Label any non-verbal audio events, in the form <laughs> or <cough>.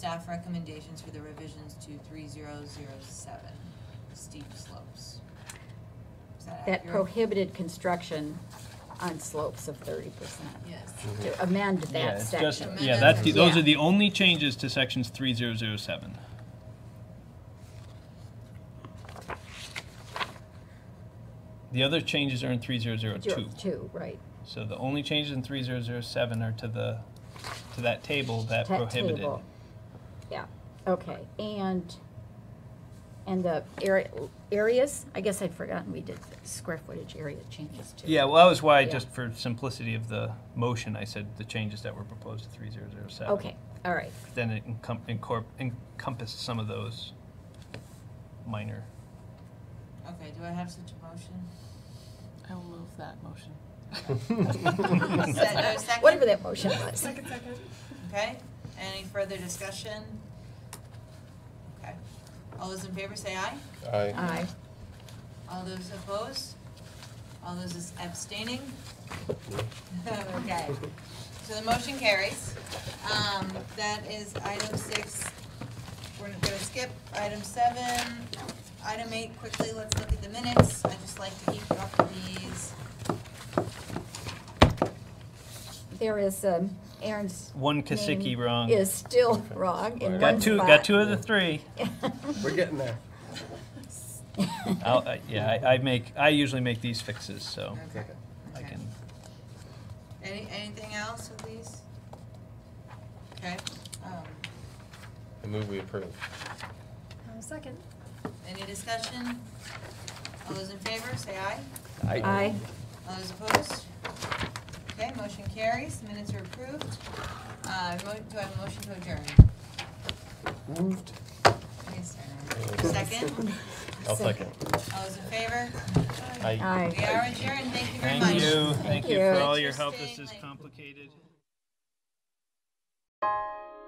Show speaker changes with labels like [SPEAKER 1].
[SPEAKER 1] Staff recommendations for the revisions to three zero zero seven, steep slopes. Is that
[SPEAKER 2] that
[SPEAKER 1] accurate?
[SPEAKER 2] prohibited construction on slopes of thirty percent.
[SPEAKER 1] Yes.
[SPEAKER 3] Mm-hmm.
[SPEAKER 2] To amend
[SPEAKER 4] Yeah,
[SPEAKER 2] that
[SPEAKER 4] it's just-
[SPEAKER 2] section.
[SPEAKER 4] Yeah, that's, the- those
[SPEAKER 2] Yeah.
[SPEAKER 4] are the only changes to sections three zero zero seven. The other changes are in three zero zero
[SPEAKER 2] Zero-
[SPEAKER 4] two.
[SPEAKER 2] Two, right.
[SPEAKER 4] So the only changes in three zero zero seven are to the, to that table that
[SPEAKER 2] Ta-
[SPEAKER 4] prohibited.
[SPEAKER 2] table. Yeah, okay, and, and the area, areas, I guess I'd forgotten we did square footage area changes too.
[SPEAKER 4] Yeah, well, that was why,
[SPEAKER 2] Yeah.
[SPEAKER 4] just for simplicity of the motion, I said the changes that were proposed to three zero zero seven.
[SPEAKER 2] Okay, all right,
[SPEAKER 4] Then it encom- incorp- encompassed some of those minor.
[SPEAKER 1] Okay, do I have such a motion?
[SPEAKER 5] I will move that
[SPEAKER 2] <laughs>
[SPEAKER 5] motion.
[SPEAKER 1] Se- uh, second?
[SPEAKER 2] whatever that motion was.
[SPEAKER 1] Okay, any further discussion? Okay, all those in favor say aye,
[SPEAKER 3] Aye.
[SPEAKER 2] Aye,
[SPEAKER 1] all those opposed, all those abstaining? <laughs> Okay, so the motion carries. Um, that is item six, we're gonna skip item seven. Item eight, quickly, let's look at the minutes, I just like to keep up these.
[SPEAKER 2] there is, um, Aaron's.
[SPEAKER 4] One Kasicki
[SPEAKER 2] name
[SPEAKER 4] wrong.
[SPEAKER 2] Is still wrong in one
[SPEAKER 4] Got two, got two of
[SPEAKER 2] <laughs>
[SPEAKER 4] the three.
[SPEAKER 3] We're getting there.
[SPEAKER 4] I'll, I- yeah, I, I make, I usually make these fixes, so
[SPEAKER 1] Okay,
[SPEAKER 4] I
[SPEAKER 1] okay.
[SPEAKER 4] can.
[SPEAKER 1] Any, anything else with these? Okay, um,
[SPEAKER 3] I move we approve.
[SPEAKER 6] Second.
[SPEAKER 1] Any discussion? All those in favor, say aye.
[SPEAKER 2] Aye,
[SPEAKER 1] All those opposed? Okay, motion carries, minutes are approved. Uh, mo- Do I have a motion to adjourn?
[SPEAKER 3] Moved.
[SPEAKER 1] Yes, sir. Second?
[SPEAKER 3] I'll second.
[SPEAKER 1] All those in favor?
[SPEAKER 3] Aye.
[SPEAKER 2] aye.
[SPEAKER 1] We are adjourned, thank you very much.
[SPEAKER 4] Thank you, thank you
[SPEAKER 2] you.
[SPEAKER 4] for all your help. This
[SPEAKER 1] Interesting,
[SPEAKER 4] is
[SPEAKER 1] like-
[SPEAKER 4] complicated.